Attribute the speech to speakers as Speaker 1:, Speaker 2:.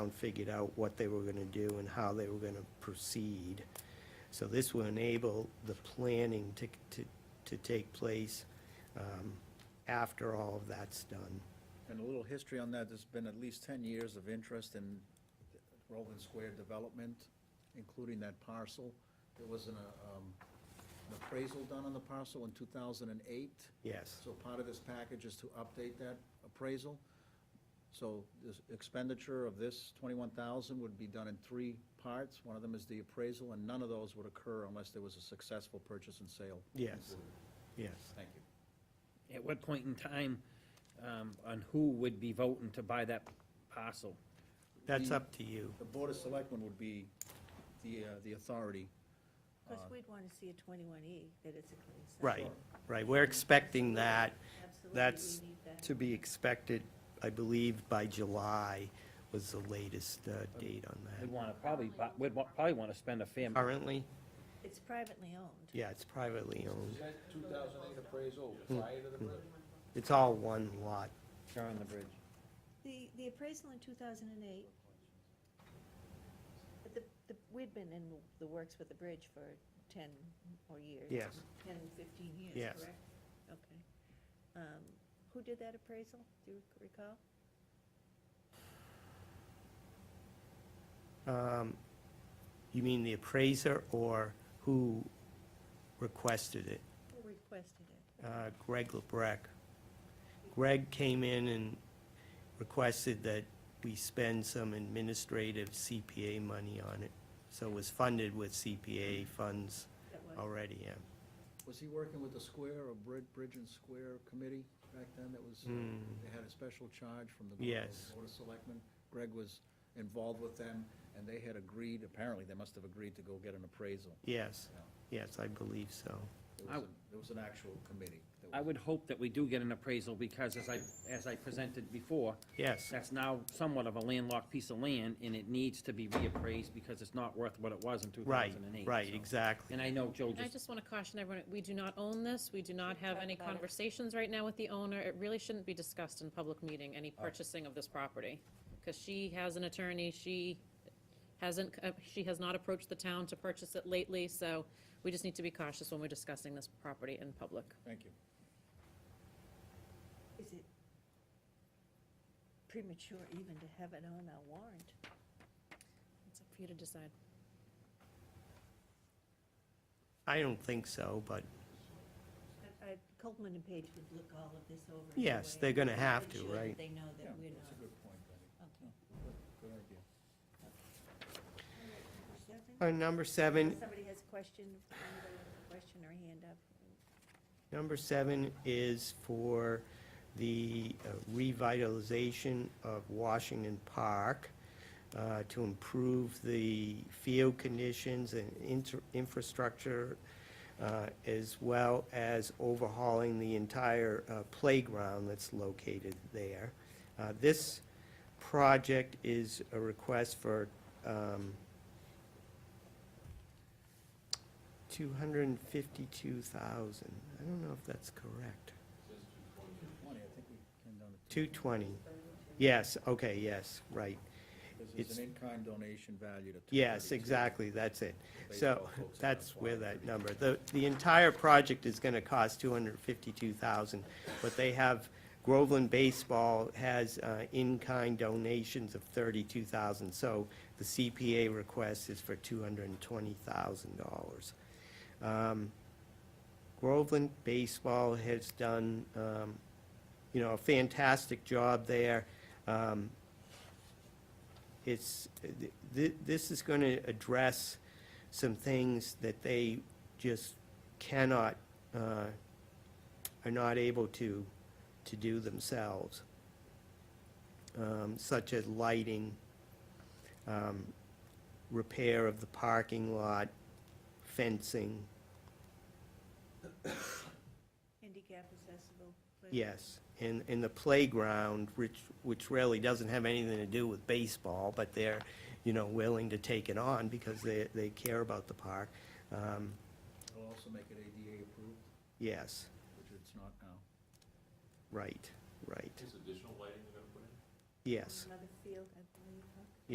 Speaker 1: and figured out what they were gonna do and how they were gonna proceed. So this will enable the planning to, to, to take place, um, after all of that's done.
Speaker 2: And a little history on that, there's been at least ten years of interest in Roland Square development, including that parcel. There was an, uh, um, an appraisal done on the parcel in two thousand and eight.
Speaker 1: Yes.
Speaker 2: So part of this package is to update that appraisal. So this expenditure of this twenty-one thousand would be done in three parts. One of them is the appraisal, and none of those would occur unless there was a successful purchase and sale.
Speaker 1: Yes, yes.
Speaker 2: Thank you.
Speaker 3: At what point in time, um, on who would be voting to buy that parcel?
Speaker 1: That's up to you.
Speaker 2: The Board of Selectmen would be the, uh, the authority
Speaker 4: Of course, we'd want to see a twenty-one E, that it's a clean
Speaker 1: Uh,
Speaker 4: site.
Speaker 1: Right, right. We're expecting that.
Speaker 4: Absolutely,
Speaker 1: That's
Speaker 4: we need that.
Speaker 1: to be expected, I believe, by July was the latest uh, date on that.
Speaker 3: We'd want to probably, bu- we'd wa- probably want to spend a fair,
Speaker 1: Currently,
Speaker 4: It's privately owned.
Speaker 1: yeah, it's privately owned. Hmm.
Speaker 5: that 2008 appraisal prior to the bridge?
Speaker 1: It's all one lot.
Speaker 3: share on the bridge.
Speaker 4: The, the appraisal in two thousand and eight, but the, the, we'd been in the works with the bridge for ten or years.
Speaker 1: Yes.
Speaker 4: Ten, fifteen years,
Speaker 1: Yes.
Speaker 4: correct? Okay. Um, Who did that appraisal? Do you recall?
Speaker 1: Um, You mean the appraiser or who requested it?
Speaker 4: Who requested it?
Speaker 1: Uh, Greg LeBrecq. Greg came in and requested that we spend some administrative CPA money on it. So it was funded with CPA funds
Speaker 4: That was-
Speaker 1: already, yeah.
Speaker 2: Was he working with the square or Bridge, Bridge and Square Committee back then that was, uh, they had a special charge from the
Speaker 1: Hmm. Yes.
Speaker 2: Board of Selectmen? Greg was involved with them, and they had agreed, apparently, they must have agreed to go get an appraisal.
Speaker 1: Yes,
Speaker 2: Yeah.
Speaker 1: yes, I believe so.
Speaker 2: There
Speaker 3: I
Speaker 2: was, an- there was an actual committee. that
Speaker 3: I
Speaker 2: was-
Speaker 3: would hope that we do get an appraisal, because as I, as I presented before,
Speaker 1: Yes,
Speaker 3: that's now somewhat of a landlocked piece of land, and it needs to be reappraised, because it's not worth what it was in two
Speaker 1: right,
Speaker 3: thousand and eight.
Speaker 1: right, exactly.
Speaker 3: And I know Joe
Speaker 6: And I
Speaker 3: just,
Speaker 6: just want to caution everyone, we do not own this, we do not have
Speaker 4: talk
Speaker 6: any
Speaker 4: about it.
Speaker 6: conversations right now with the owner. It really shouldn't be discussed in public meeting, any purchasing of this property. Because she has an attorney, she hasn't, uh, she has not approached the town to purchase it lately, so we just need to be cautious when we're discussing this property in public.
Speaker 2: Thank you.
Speaker 4: Is it premature even to have it on our warrant?
Speaker 6: It's up for you to decide.
Speaker 1: I don't think so, but
Speaker 4: I- I- Coleman Uh, and Page would look all of this over.
Speaker 1: yes,
Speaker 4: anyway,
Speaker 1: they're gonna have
Speaker 4: make
Speaker 1: to,
Speaker 4: sure that
Speaker 1: right?
Speaker 4: They know
Speaker 2: Yeah,
Speaker 4: that we're
Speaker 2: that's a
Speaker 4: not.
Speaker 2: good point, Betty.
Speaker 4: Okay.
Speaker 2: Good idea.
Speaker 4: Seven?
Speaker 1: Uh, Number seven
Speaker 4: Somebody has a question, if anybody has a question or hand up.
Speaker 1: Number seven is for the uh, revitalization of Washington Park uh, to improve the field conditions and inter- infrastructure, uh, as well as overhauling the entire uh, playground that's located there. Uh, This project is a request for um, Two hundred and fifty-two thousand. I don't know if that's correct.
Speaker 2: Money, I think we came down to
Speaker 1: Two twenty. Yes, okay, yes, right.
Speaker 2: because there's an in-kind donation valued at.
Speaker 1: Yes,
Speaker 2: 232.
Speaker 1: exactly, that's it. So
Speaker 2: Baseball folks are
Speaker 1: that's
Speaker 2: not
Speaker 1: where that number, the, the entire project is gonna cost two hundred and fifty-two thousand, but they have, Groveland Baseball has uh, in-kind donations of thirty-two thousand, so the CPA request is for two hundred and twenty thousand dollars. Um, Groveland Baseball has done, um, you know, a fantastic job there. Um, it's, th- th- this is going to address some things that they just cannot, uh, are not able to, to do themselves, um, such as lighting, um, repair of the parking lot, fencing,
Speaker 4: Handicap accessible. but-
Speaker 1: yes. And, and the playground, which, which really doesn't have anything to do with baseball, but they're, you know, willing to take it on because they, they care about the park. Um,
Speaker 2: It'll also make it ADA approved,
Speaker 1: Yes,
Speaker 2: which it's not now.
Speaker 1: right, right,
Speaker 5: Is additional lighting they're gonna put in?
Speaker 1: yes,
Speaker 4: Another field, I